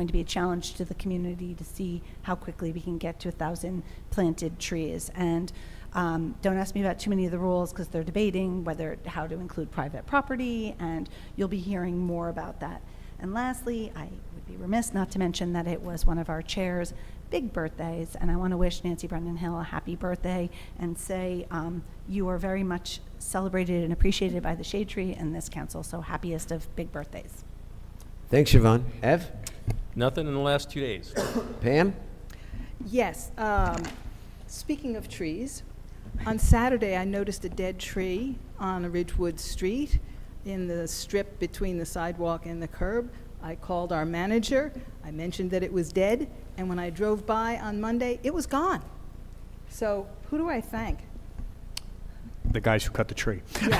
going to be a challenge to the community to see how quickly we can get to a thousand planted trees. And um, don't ask me about too many of the rules because they're debating whether how to include private property, and you'll be hearing more about that. And lastly, I would be remiss not to mention that it was one of our chair's big birthdays, and I want to wish Nancy Brendan Hill a happy birthday and say um, you are very much celebrated and appreciated by the Shade Tree and this council. So happiest of big birthdays. Thanks, Siobhan. Ev? Nothing in the last two days. Pam? Yes, um, speaking of trees, on Saturday, I noticed a dead tree on Ridgewood Street in the strip between the sidewalk and the curb. I called our manager, I mentioned that it was dead, and when I drove by on Monday, it was gone. So who do I thank? the guys who cut the tree. Yeah,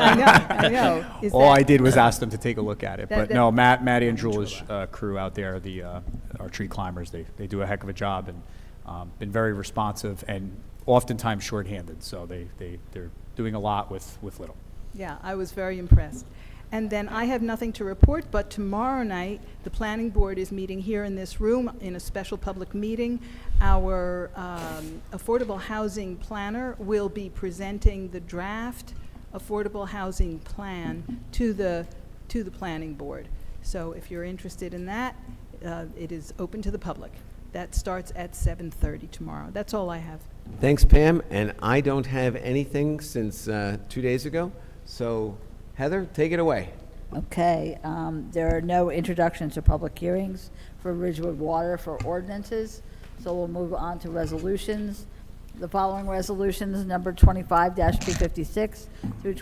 I know, I know. Is All Oh, I that- did was ask them to take a look at it, That- but no, that- Matt, Matty and Jul's uh, crew out there, the, uh, our tree climbers, they, they do a heck of a job and um, been very responsive and oftentimes shorthanded, so they, they, they're doing a lot with, with little. Yeah, I was very impressed. And then I have nothing to report, but tomorrow night, the planning board is meeting here in this room in a special public meeting. Our um, affordable housing planner will be presenting the draft affordable housing plan to the, to the planning board. So if you're interested in that, uh, it is open to the public. That starts at 7:30 tomorrow. That's all I have. Thanks, Pam. And I don't have anything since uh, two days ago. So, Heather, take it away. Okay, um, there are no introductions or public hearings for Ridgewood Water for ordinances, so we'll move on to resolutions. The following resolutions, number 25-256 through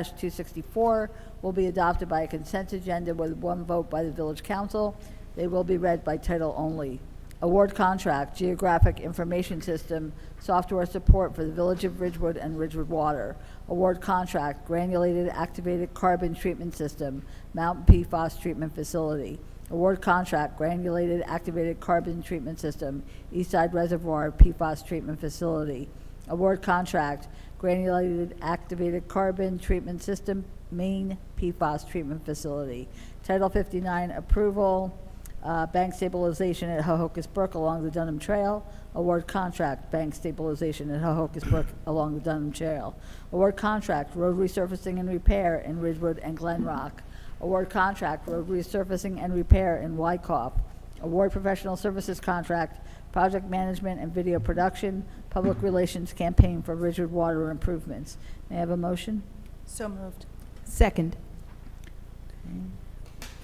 25-264, will be adopted by a consent agenda with one vote by the village council. They will be read by title only. Award contract, geographic information system, software support for the Village of Ridgewood and Ridgewood Water. Award contract, granulated activated carbon treatment system, Mount PFAS treatment facility. Award contract, granulated activated carbon treatment system, Eastside Reservoir PFAS treatment facility. Award contract, granulated activated carbon treatment system, Maine PFAS treatment facility. Title 59 approval, uh, Bank stabilization at Hohokus Brook along the Dunham Trail. Award contract, bank stabilization at Hohokus Brook along the Dunham Trail. Award contract, road resurfacing and repair in Ridgewood and Glen Rock. Award contract, road resurfacing and repair in Wykoff. Award professional services contract, project management and video production, public relations campaign for Ridgewood water improvements. May I have a motion? So moved. Second.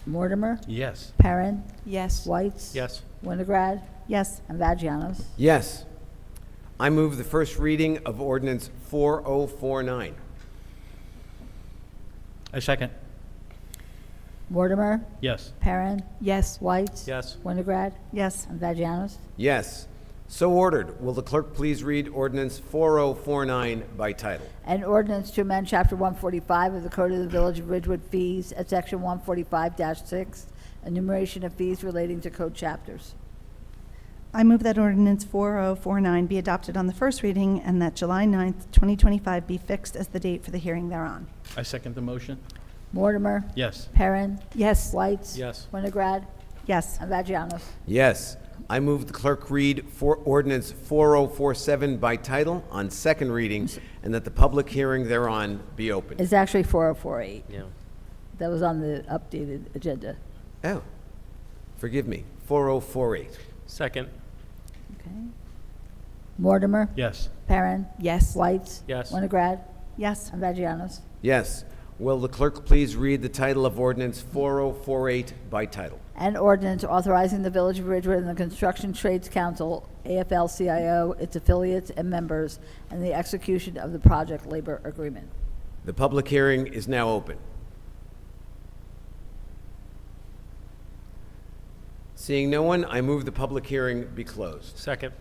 Mortimer, Yes. Perrin, Yes. Whites. Yes. Winograd, Yes. and Vagianos. Yes. I move the first reading of ordinance 4049. I second. Mortimer, Yes. Perrin, Yes. Whites. Yes. Winograd Yes. and Vagianos. Yes. So ordered. Will the clerk please read ordinance 4049 by title? An ordinance to amend Chapter 145 of the Code of the Village of Ridgewood fees at Section 145-6, enumeration of fees relating to code chapters. I move that ordinance 4049 be adopted on the first reading and that July 9th, 2025 be fixed as the date for the hearing thereon. I second the motion. Mortimer, Yes. Perrin, Yes. Whites. Yes. Winograd Yes. and Vagianos. Yes. I move the clerk read for ordinance 4047 by title on second reading and that the public hearing thereon be opened. It's actually 4048. Yeah. That was on the updated agenda. Oh, forgive me. 4048. Second. Okay. Mortimer, Yes. Perrin, Yes. Whites. Yes. Winograd Yes. and Vagianos. Yes. Will the clerk please read the title of ordinance 4048 by title? An ordinance authorizing the Village of Ridgewood and the Construction Trades Council, AFL-CIO, its affiliates and members, and the execution of the project labor agreement. The public hearing is now open. Seeing no one, I move the public hearing be closed. Second.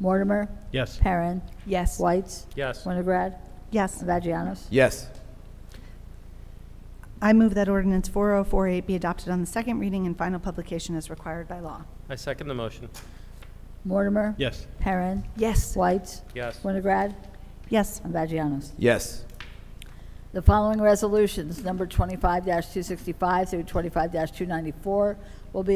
Mortimer, Yes. Perrin, Yes. Whites, Yes. Winograd, Yes. and Vagianos. Yes. I move that ordinance 4048 be adopted on the second reading and final publication as required by law. I second the motion. Mortimer, Yes. Perrin, Yes. Whites, Yes. Winograd, Yes. and Vagianos. Yes. The following resolutions, number 25-265 through 25-294, will be